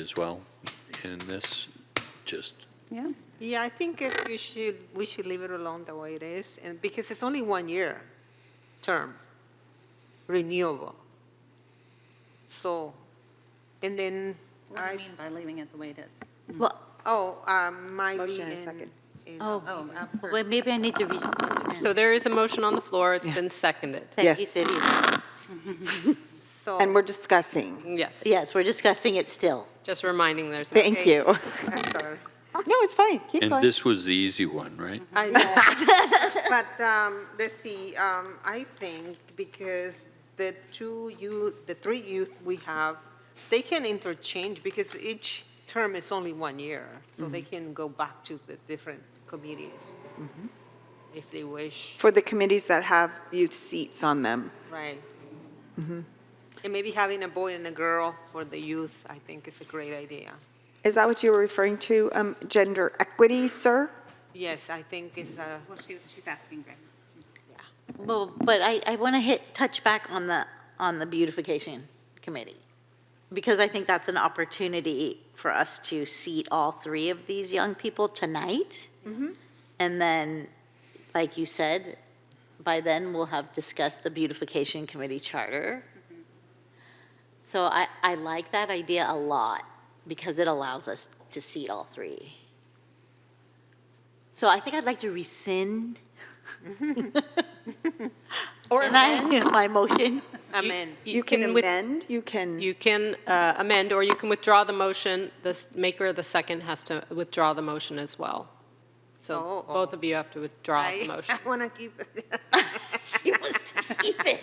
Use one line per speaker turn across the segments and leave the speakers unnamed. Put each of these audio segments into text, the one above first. as well in this, just,
Yeah,
Yeah, I think if you should, we should leave it alone the way it is, and because it's only one year term, renewable. So, and then,
What do you
I,
mean by leaving it the way it is?
Well,
oh, um, might be
Motion and a
in-
second.
in-
oh,
Oh, I've heard.
well, maybe I need to res
So there is a motion on the floor, it's been seconded.
Thank you,
Yes.
Cindy.
So,
and we're discussing.
Yes,
Yes, we're discussing it still.
just reminding there's, a-
Thank
Okay.
you.
I'm sorry.
No, it's fine, keep
and
going.
this was the easy one, right?
I know, but, um, let's see, um, I think because the two youth, the three youth we have, they can interchange because each term is only one year, so they can go back to the different committees if they wish,
For the committees that have youth seats on them.
right? And maybe having a boy and a girl for the youth, I think is a great idea.
Is that what you were referring to, um, gender equity, sir?
Yes, I think it's a,
Well, she was, she's asking, Greg.
Well, but I, I want to hit, touch back on the, on the beautification committee, because I think that's an opportunity for us to seat all three of these young people tonight. And then, like you said, by then, we'll have discussed the beautification committee charter. So I, I like that idea a lot, because it allows us to seat all three. So I think I'd like to rescind or amend my motion.
amen.
You can
with-
amend, you can,
you can uh, amend, or you can withdraw the motion. The s- maker of the second has to withdraw the motion as well. So
Oh, oh.
both of you have to withdraw the
I,
motion.
I want to keep,
She wants to keep it.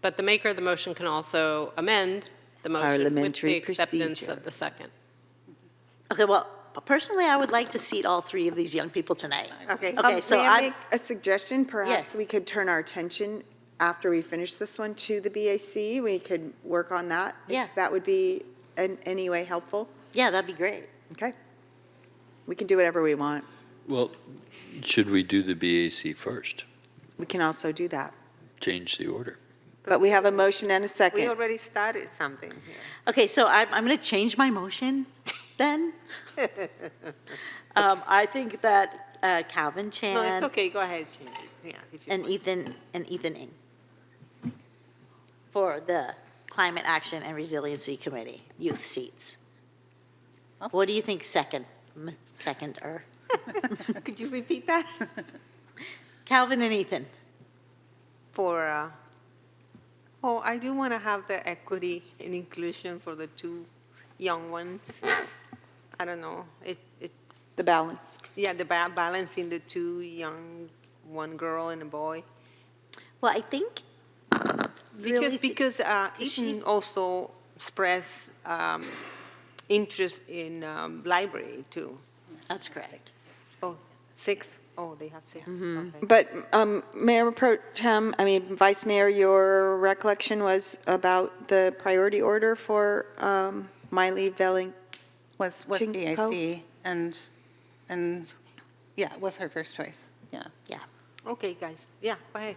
But the maker of the motion can also amend the motion with
Parliamentary
the acceptance
procedure.
of the second.
Okay, well, personally, I would like to seat all three of these young people tonight.
okay.
Okay,
Um,
so
May I
I-
make a suggestion? Perhaps
Yes.
we could turn our attention, after we finish this one, to the BAC. We could work on that. if
Yeah.
That would be in any way helpful.
Yeah, that'd be great.
Okay. We can do whatever we want.
Well, should we do the BAC first?
We can also do that.
Change the order?
But we have a motion and a
We
second.
already started something here.
Okay, so I'm, I'm going to change my motion then. Um, I think that uh, Calvin
No, it's
Chan
okay, go ahead, change it, yeah, if you
and
want.
Ethan, and Ethan Ing for the Climate Action and Resiliency Committee, youth seats. What do you think, second, m- second or?
Could you repeat that?
Calvin and Ethan.
For, uh, oh, I do want to have the equity and inclusion for the two young ones. I don't know, it, it,
The balance.
yeah, the ba- balancing the two young, one girl and a boy.
Well, I think
Because,
really,
because uh,
could she-
Ethan also expressed um, interest in um, library too.
that's correct.
Oh, six? Oh, they have six,
Mm-hmm.
okay.
But um, Mayor Pro Tem, I mean, Vice Mayor, your recollection was about the priority order for um, Miley Velling.
Was, was
Ching-
BAC, and, and, yeah, it was her first choice, yeah.
Yeah,
Okay, guys, yeah, go ahead.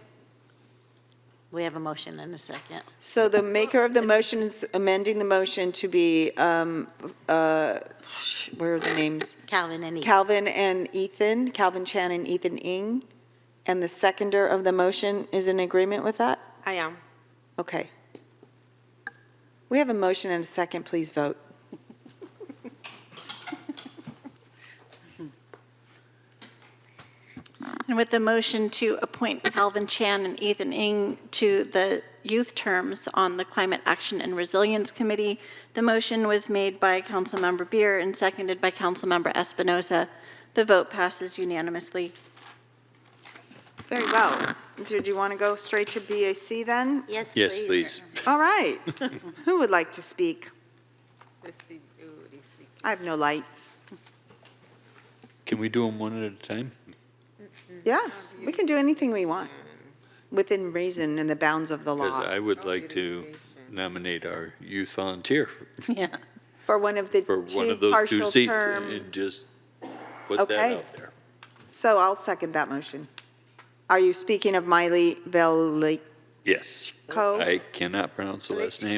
we have a motion and a second.
So the maker of the motion is amending the motion to be, um, uh, where are the names?
Calvin and Ethan.
Calvin and Ethan, Calvin Chan and Ethan Ing. And the seconder of the motion is in agreement with that?
I am.
Okay. We have a motion and a second, please vote.
And with the motion to appoint Calvin Chan and Ethan Ing to the youth terms on the Climate Action and Resilience Committee, the motion was made by Councilmember Beer and seconded by Councilmember Espinoza. The vote passes unanimously.
Very well. Did you want to go straight to BAC then?
Yes, please.
Yes, please.
All right. Who would like to speak? I have no lights.
Can we do them one at a time?
Yes, we can do anything we want, within reason and the bounds of the
Because
law,
I would like to nominate our youth volunteer
Yeah.
for one of the
for one
two
of those two
partial
seats
term.
and just put that
Okay.
out there.
So I'll second that motion. Are you speaking of Miley Veliko?
Yes. I cannot pronounce the last name.